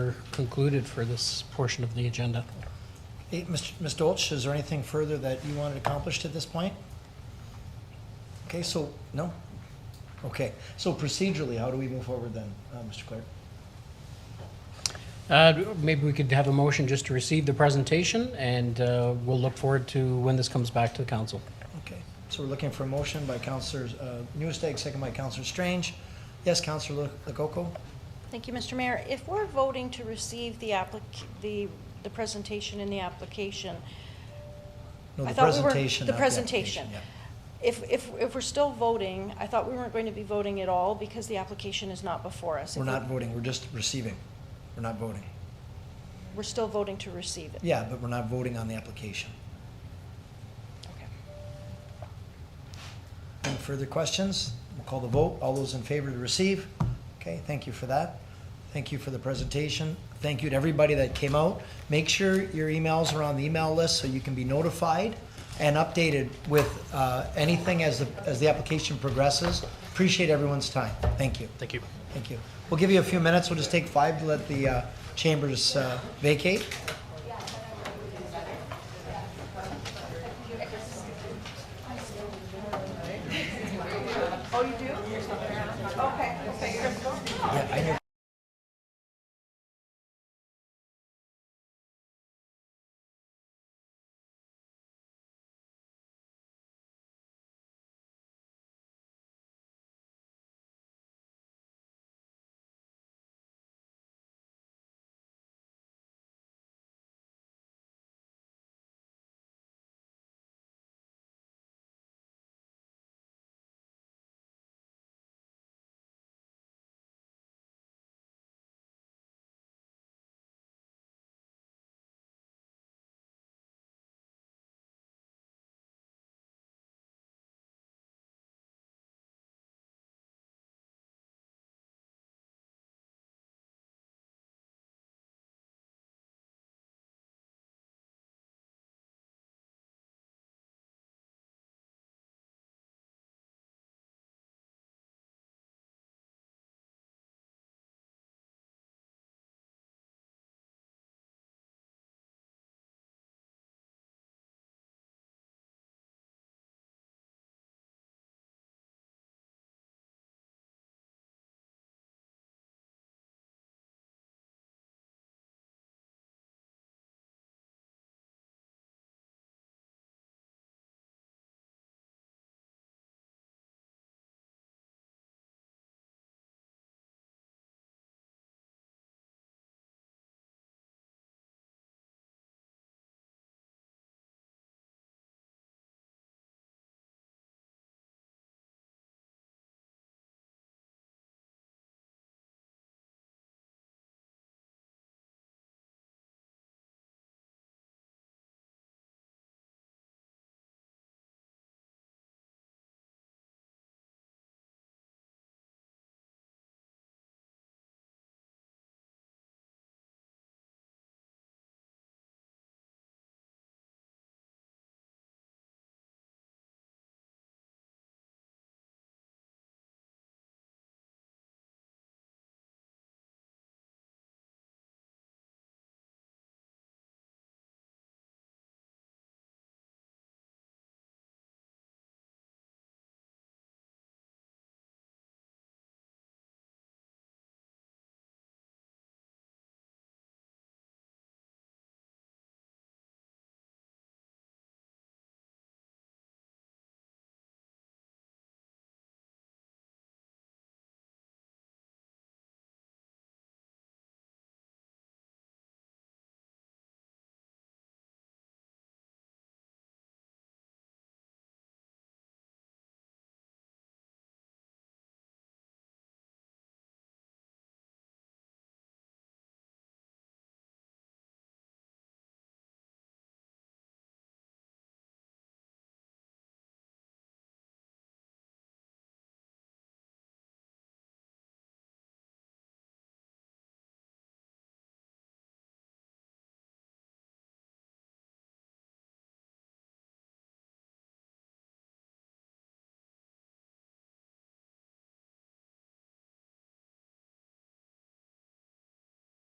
We're concluded for this portion of the agenda. Hey, Mr. Ms. Dolch, is there anything further that you wanted accomplished at this point? Okay, so, no? Okay, so procedurally, how do we move forward then, uh, Mr. Clerk? Uh, Maybe we could have a motion just to receive the presentation, and uh, we'll look forward to when this comes back to the council. Okay, so we're looking for a motion by Counselor uh, Newstead, second by Counselor Strange. Yes, Counselor Lococo? Thank you, Mr. Mayor. If we're voting to receive the applic, the, the presentation and the application, No, I the thought we were- presentation. the not application, presentation. yeah. if, if, if we're still voting, I thought we weren't going to be voting at all because the application is not before us. If We're we- not voting, we're just receiving. We're not voting. We're still voting to receive it. Yeah, but we're not voting on the application. Okay. Any further questions? We'll call the vote. All those in favor to receive? Okay, thank you for that. Thank you for the presentation. Thank you to everybody that came out. Make sure your emails are on the email list so you can be notified and updated with uh, anything as the, as the application progresses. Appreciate everyone's time. Thank you. Thank you. Thank you. We'll give you a few minutes. We'll just take five to let the uh, chambers uh, vacate.